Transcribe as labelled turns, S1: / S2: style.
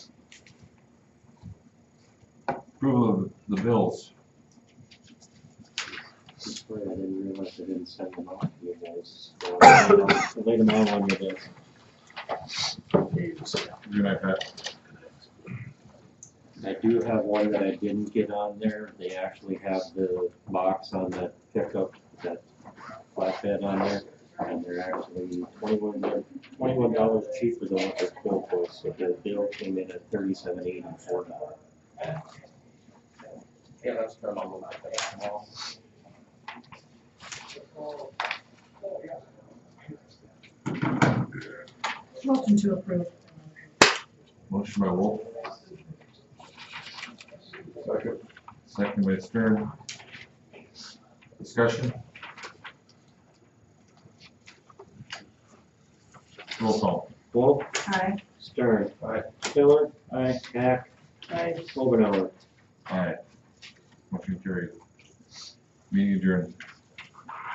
S1: Approval of the bills.
S2: Sorry, I didn't realize I didn't send them out to you guys. So, I'll Lay them out on your desk.
S1: Good night, Pat.
S2: I do have one that I didn't get on there. They actually have the box on that pickup, that flatbed on there. And they're actually twenty-one, twenty-one dollars cheaper than what their quote was, so their bill came in at thirty-seven eighty-four dollars.
S3: Yeah, that's been a little bit small.
S4: Motion to approve.
S1: Motion by Wolf. Second. Second by Stern. Discussion. Roll call.
S2: Wolf,
S4: Aye.
S2: Stern.
S1: Aye.
S2: Miller. Aye. Hack.
S4: Aye.
S2: Omenauer.
S1: Aye. Motion carried. Meeting adjourned.